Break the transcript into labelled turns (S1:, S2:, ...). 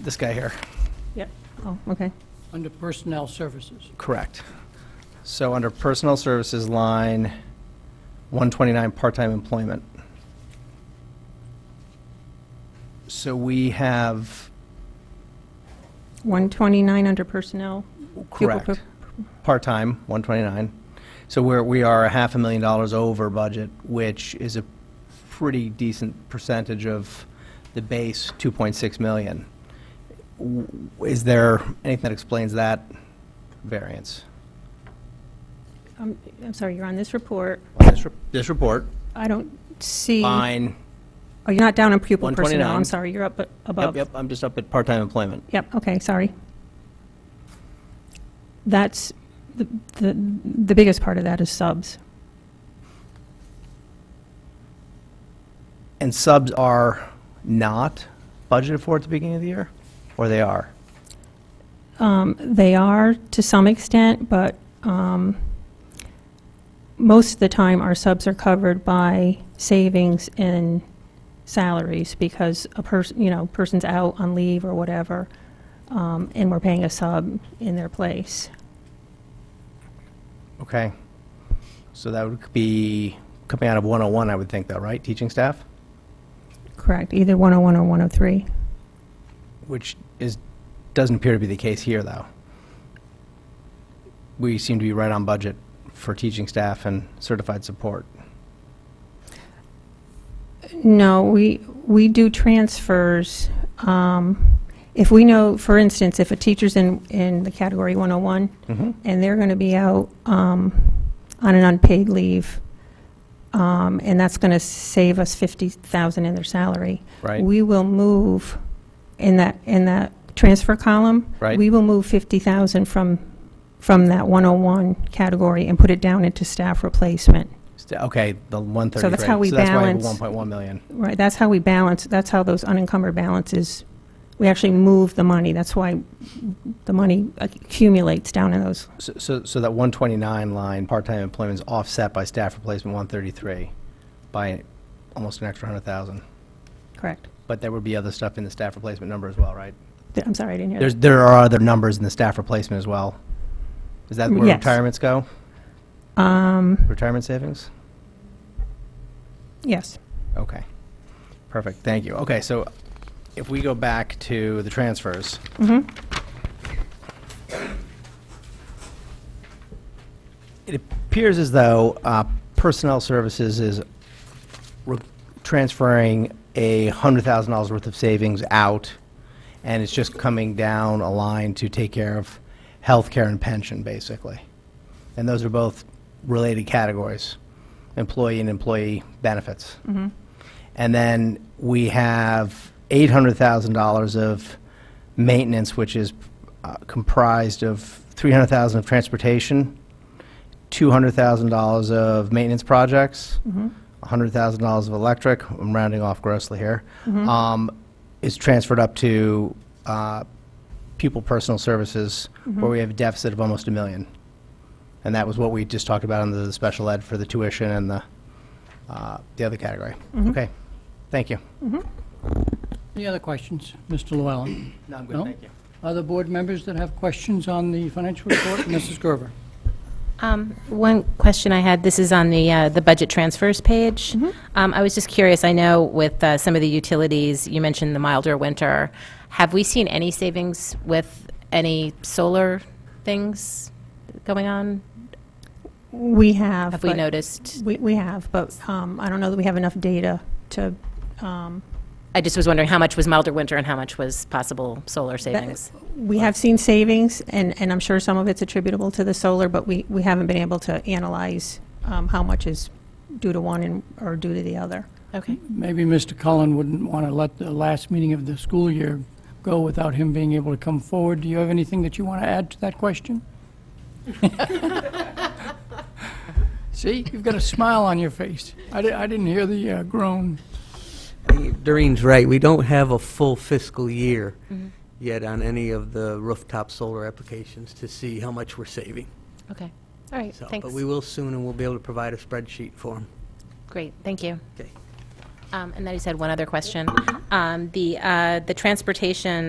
S1: This guy here,
S2: Yep. Oh, okay.
S3: Under Personnel Services.
S1: correct. So under Personnel Services line 129, part-time employment. So we have,
S2: 129 under personnel. Pupil
S1: correct,
S2: per-
S1: part-time, 129. So we're, we are a half a million dollars over budget, which is a pretty decent percentage of the base 2.6 million. W- Is there anything that explains that variance?
S2: I'm Um, I'm sorry, you're on this report.
S1: This re- This report,
S2: I don't see, oh,
S1: line,
S2: you're not down on pupil personnel.
S1: 129.
S2: I'm sorry, you're up a-
S1: yep,
S2: above.
S1: yep, I'm just up at part-time employment.
S2: Yep, okay, sorry. That's, the the the biggest part of that is subs.
S1: And subs are not budgeted for at the beginning of the year, or they are?
S2: Um, They are to some extent, but um, most of the time, our subs are covered by savings in salaries because a person, you know, person's out on leave or whatever, um, and we're paying a sub in their place.
S1: Okay. So that would be coming out of 101, I would think, though, right? Teaching staff,
S2: Correct, either 101 or 103.
S1: which is, doesn't appear to be the case here, though. We seem to be right on budget for teaching staff and certified support.
S2: No, we, we do transfers. um, If we know, for instance, if a teacher's in, in the category 101,
S1: Mhm.
S2: and they're going to be out um, on an unpaid leave, um, and that's going to save us 50,000 in their salary.
S1: Right.
S2: We will move, in that, in that transfer column.
S1: Right.
S2: We will move 50,000 from, from that 101 category and put it down into staff replacement.
S1: Sta- Okay, the 133.
S2: So that's how we
S1: So that's why I have
S2: balance-
S1: 1.1 million.
S2: Right, that's how we balance, that's how those unencumbered balances, we actually move the money. That's why the money accumulates down in those.
S1: So- So, so that 129 line, part-time employment is offset by staff replacement 133 by almost an extra 100,000.
S2: Correct.
S1: But there would be other stuff in the staff replacement number as well, right?
S2: Th- I'm sorry, I didn't hear that.
S1: There's, there are other numbers in the staff replacement as well. Is that where
S2: Yes.
S1: retirements go?
S2: Um,
S1: Retirement savings?
S2: yes.
S1: Okay. Perfect, thank you. Okay, so if we go back to the transfers,
S2: Mm-hmm.
S1: it appears as though uh, Personnel Services is re- transferring a $100,000 worth of savings out, and it's just coming down a line to take care of healthcare and pension, basically. And those are both related categories, employee and employee benefits. And then we have $800,000 of maintenance, which is uh, comprised of 300,000 of transportation, $200,000 of maintenance projects, $100,000 of electric, I'm rounding off grossly here, um, is transferred up to uh, pupil personal services, where we have a deficit of almost a million. And that was what we just talked about under the special ed for the tuition and the, uh, the other category. Okay, thank you.
S3: Any other questions, Mr. Llewellyn?
S1: No, I'm
S3: No? Other board members that have questions on the financial report? Mrs. Gerber?
S4: Um, One question I had, this is on the, uh, the budget transfers page.
S2: Mm-hmm.
S4: Um, I was just curious, I know with uh, some of the utilities, you mentioned the milder winter. Have we seen any savings with any solar things going on?
S2: We have.
S4: Have we
S2: but-
S4: noticed?
S2: We, we have, but um, I don't know that we have enough data to, um,
S4: I just was wondering how much was milder winter and how much was possible solar
S2: that-
S4: savings?
S2: we have seen savings, and, and I'm sure some of it's attributable to the solar, but we, we haven't been able to analyze um, how much is due to one and, or due to the other.
S4: Okay,
S3: Maybe Mr. Cullen wouldn't want to let the last meeting of the school year go without him being able to come forward. Do you have anything that you want to add to that question? See, you've got a smile on your face. I di- I didn't hear the uh, groan.
S5: Doreen's right, we don't have a full fiscal year yet on any of the rooftop solar applications to see how much we're saving.
S4: okay. All right,
S5: So,
S4: thanks.
S5: But we will soon, and we'll be able to provide a spreadsheet for them.
S4: Great, thank you.
S5: Okay.
S2: Mm-hmm.
S4: Um, And then I just had one other question. Um, The, uh, the transportation